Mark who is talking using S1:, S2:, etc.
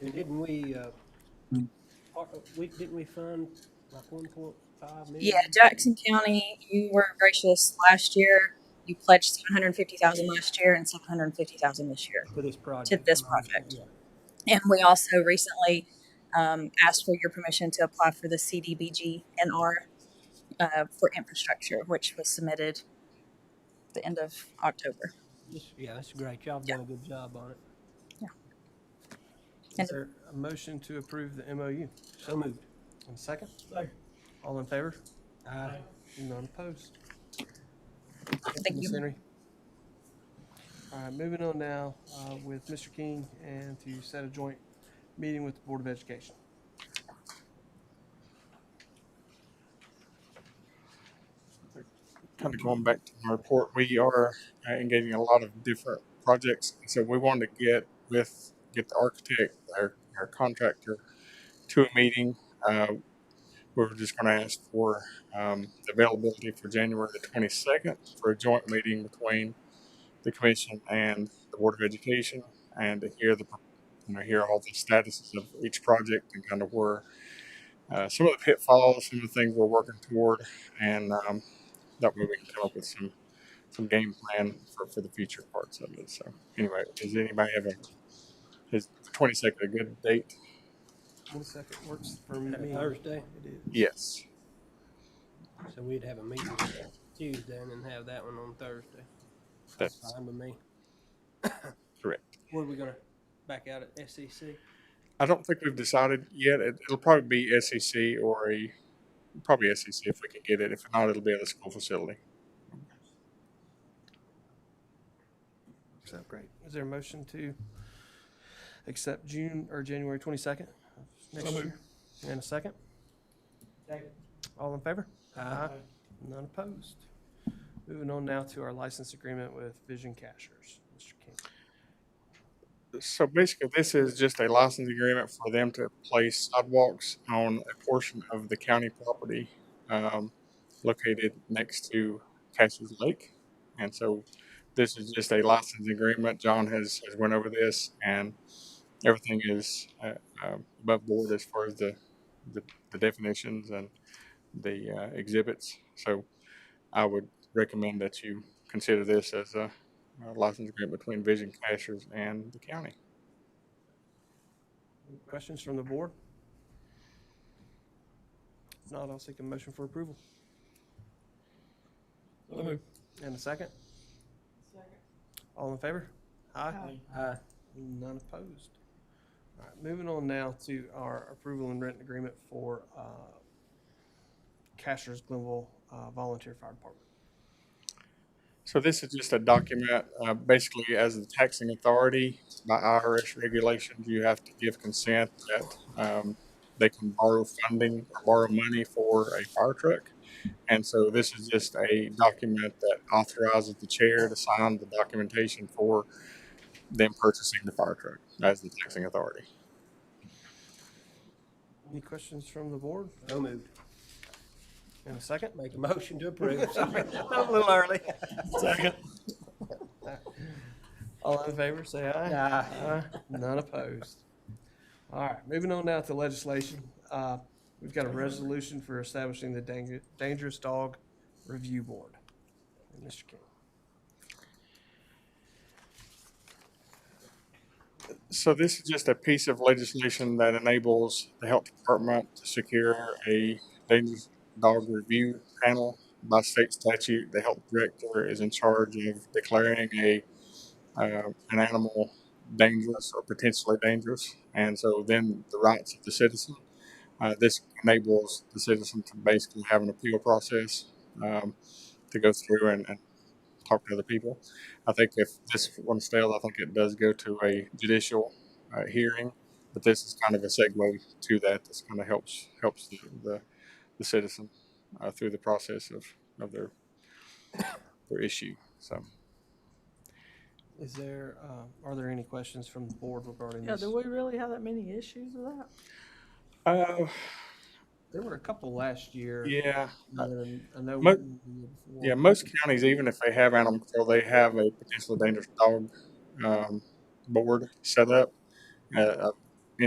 S1: And didn't we, uh, part- we, didn't we fund like one point five
S2: Yeah,
S1: million?
S2: Jackson County, you were gracious last year. You pledged 750,000 last year and 750,000 this year
S1: For this
S2: to
S1: project,
S2: this
S1: am I understanding?
S2: project.
S1: Yeah.
S2: And we also recently um, asked for your permission to apply for the CDBG NR uh, for infrastructure, which was submitted the end of October.
S1: This, yeah, that's great. Y'all have
S2: Yeah,
S1: done a good job on it.
S2: yeah.
S3: Is
S2: And
S3: there a motion to approve the MOU?
S1: So moved.
S3: And a second?
S1: Second.
S3: All in favor?
S1: Aye.
S3: None opposed. Thank you,
S2: thank
S3: Ms.
S2: you.
S3: Henry. All right, moving on now uh, with Mr. King and to set a joint meeting with the Board of Education.
S4: kind of going back to my report, we are uh, engaging a lot of different projects. So we wanted to get with, get the architect, our, our contractor to a meeting. Uh, we were just going to ask for um, availability for January the 22nd for a joint meeting between the commission and the Board of Education and to hear the, you know, hear all the statuses of each project and kind of where, uh, some of the pitfalls, some of the things we're working toward and, um, that way we can come up with some some game plan for, for the future parts of it. So anyway, does anybody have a is twenty second a good date?
S3: Twenty-second works for
S1: Is that
S3: me.
S1: Thursday?
S3: It is.
S4: Yes.
S1: So we'd have a meeting Tuesday and then have that one on Thursday. That's
S4: That's
S1: fine with me.
S4: correct.
S1: What are we gonna, back out at E SEC?
S4: I don't think we've decided yet. It, it'll probably be SEC or a probably SEC if we can get it. If not, it'll be at a school facility.
S3: So great. Is there a motion to accept June or January twenty-second of next year? And a second?
S1: Second.
S3: All in favor?
S1: Aye.
S3: None opposed. Moving on now to our license agreement with Vision Cashers. Mr. King.
S4: So basically, this is just a license agreement for them to place sidewalks on a portion of the county property um, located next to Cassius Lake. And so this is just a license agreement. John has, has went over this and everything is uh, um, above board as far as the, the the definitions and the uh, exhibits. So I would recommend that you consider this as a a license agreement between Vision Cashers and the county.
S3: Questions from the board? If not, I'll seek a motion for approval. And a second? All in favor? Aye.
S1: Aye.
S3: None opposed. All right, moving on now to our approval and rent agreement for uh, Cashers Glenville uh, Volunteer Fire Department.
S4: So this is just a document, uh, basically as the taxing authority, by IRS regulations, you have to give consent that, um, they can borrow funding, or borrow money for a fire truck. And so this is just a document that authorizes the chair to sign the documentation for them purchasing the fire truck as the taxing authority.
S3: Any questions from the board?
S1: So moved.
S3: And a second?
S1: Make a motion to approve. Sorry.
S3: I'm a little early. Second. All in favor, say aye.
S1: Aye.
S3: Aye. None opposed. All right, moving on now to legislation. Uh, We've got a resolution for establishing the Dang- Dangerous Dog Review Board. And Mr. King.
S4: So this is just a piece of legislation that enables the health department to secure a dangerous dog review panel. By state statute, the health director is in charge of declaring a, uh, an animal dangerous or potentially dangerous. And so then the rights of the citizen, uh, this enables the citizen to basically have an appeal process, um, to go through and, and talk to other people. I think if this one fails, I think it does go to a judicial uh, hearing. But this is kind of a segue to that. This kind of helps helps the the, the citizen uh, through the process of, of their their issue. So
S3: Is there, uh, are there any questions from the board regarding
S5: Yeah,
S3: this?
S5: do we really have that many issues with that?
S4: uh,
S3: There were a couple last year.
S4: yeah,
S3: and then I know.
S4: Mo-
S3: one the year before.
S4: yeah. Most counties, even if they have animal control, they have a potentially dangerous dog um, board set up. Uh, I